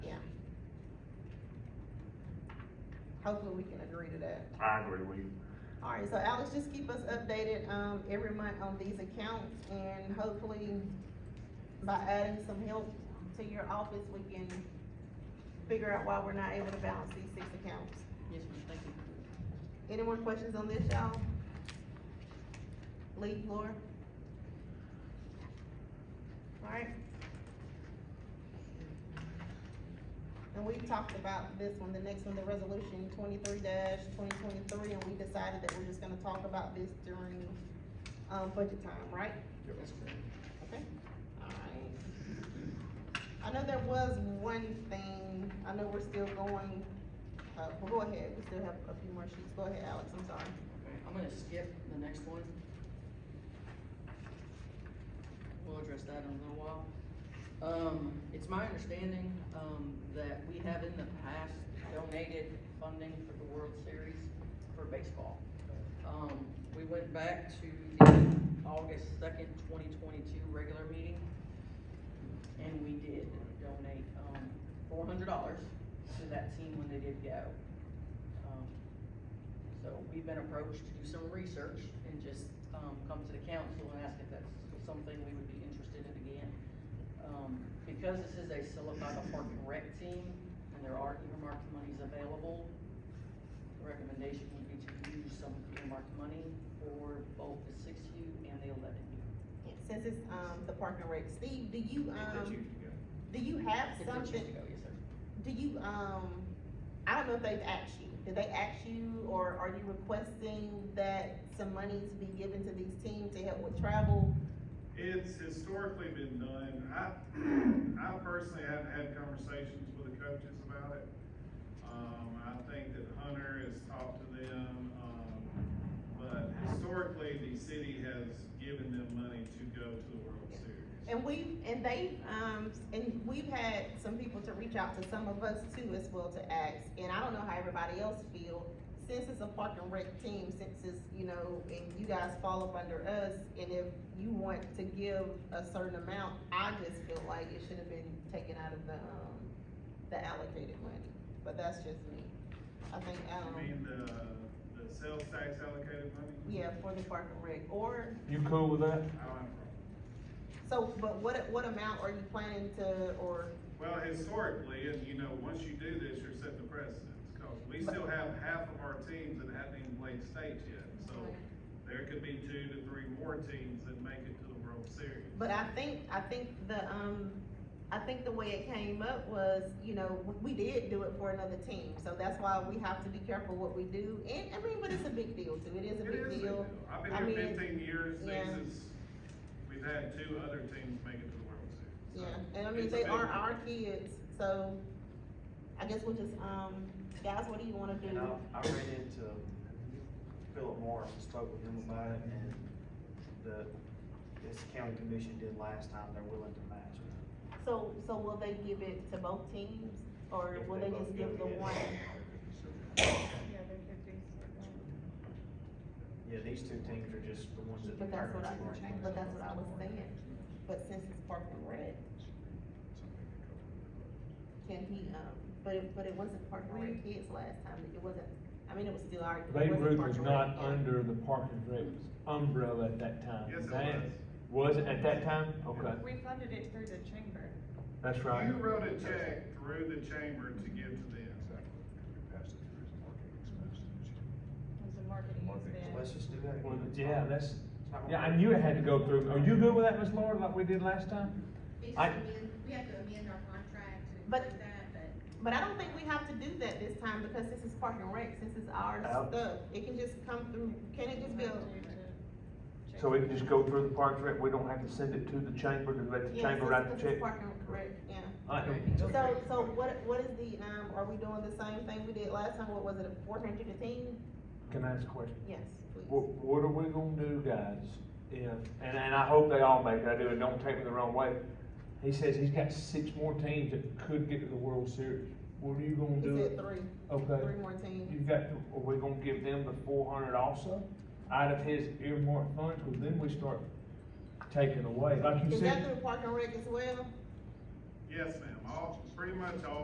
Hopefully, we can agree to that. I agree with you. All right, so Alex, just keep us updated, um, every month on these accounts, and hopefully by adding some help to your office, we can figure out why we're not able to balance these six accounts. Yes, ma'am, thank you. Any more questions on this, y'all? Lee, Laura? Alright. And we talked about this one, the next one, the resolution twenty-three twenty twenty-three, and we decided that we're just gonna talk about this during, um, budget time, right? That's correct. Okay, alright. I know there was one thing, I know we're still going, uh, well, go ahead, we still have a few more sheets, go ahead, Alex, I'm sorry. Okay, I'm gonna skip the next one. We'll address that in a little while. Um, it's my understanding, um, that we have in the past donated funding for the World Series for baseball. Um, we went back to the August second, twenty twenty-two regular meeting, and we did donate, um, four hundred dollars to that team when they did go. Um, so we've been approached to do some research and just, um, come to the council and ask if that's something we would be interested in again. Um, because this is a Silicotta Park and Rec team, and there are earmarked monies available, the recommendation would be to use some earmarked money for both the six U and the eleven U. Since it's, um, the park and rec, Steve, do you, That's you, um, yeah. do you have If they choose to something, go, yes, sir. do you, um, I don't know if they've asked you, did they ask you, or are you requesting that some monies be given to these teams to help with travel? It's historically been done. I, I personally haven't had conversations with the coaches about it. Um, I think that Hunter has talked to them, um, but historically, the city has given them money to go to the World Series. And we, and they, um, and we've had some people to reach out to some of us too as well to ask, and I don't know how everybody else feel. Since it's a park and rec team, since it's, you know, and you guys fall up under us, and if you want to give a certain amount, I just feel like it should have been taken out of the, um, the allocated money, but that's just me. I think, You um, mean the, the sales tax allocated money? yeah, for the park and rec, or You cool with that? I don't have a problem. So, but what, what amount are you planning to, or, Well, historically, and you know, once you do this, you're setting the precedent, because we still have half of our teams that haven't even played states yet. So there could be two to three more teams that make it to the World Series. but I think, I think the, um, I think the way it came up was, you know, we- we did do it for another team, so that's why we have to be careful what we do, and, I mean, but it's a big deal too, it is a It big is a deal. I've I been mean, here fifteen years, yeah. this is, we've had two other teams make it to the World Series. Yeah, So and I it's mean, a they big are deal. our kids, so I guess we'll just, um, guys, what do you wanna And I, do? I ran into Philip Morris, and spoke with him about it, and the, this county commission did last time, they're willing to match it. So, so will they give it to both teams, or If will they they both just give give the it. one? Yeah, these two teams are just the ones that. But that's what I, determine who's going. but that's what I was saying, but since it's Park and Rec, can he, um, but it, but it wasn't Park and Rec kids last time, it wasn't, I mean, it was still our. it Babe wasn't Ruth Park was and not Rec, yeah. under the Park and Rec umbrella at that time. Yes, it That- Was it at that time? Okay, We funded it through the chamber. that's right. You wrote a check through the chamber to give to them. It was a marketing So expense. Let's just do that. Well, again. yeah, that's, It's not gonna yeah, I work. knew it had to go through. Are you good with that, Miss Laura, like we did last time? We just I- amend, we have to amend our contract to But- include that, but. But I don't think we have to do that this time, because this is Park and Rec, since it's our Oh. stuff, it can just come through, can it just be, a- So we can just go through the Park and Rec, we don't have to send it to the chamber, to let the yeah, chamber since write the this is check? Park and Rec, yeah. I don't- So, so what, what is the, um, are we doing the same thing we did last time, what was it, a four hundred a team? Can I ask a question? Yes, please. What, what are we gonna do, guys, if, and, and I hope they all make it, I do, and don't take me the wrong way. He says he's got six more teams that could get to the World Series. What are you gonna He do? said three, Okay. three more teams. You've got, are we gonna give them the four hundred also, out of his earmarked funds, cause then we start taking away, like you Is said. that through Park and Rec as well? Yes, ma'am, all, pretty much all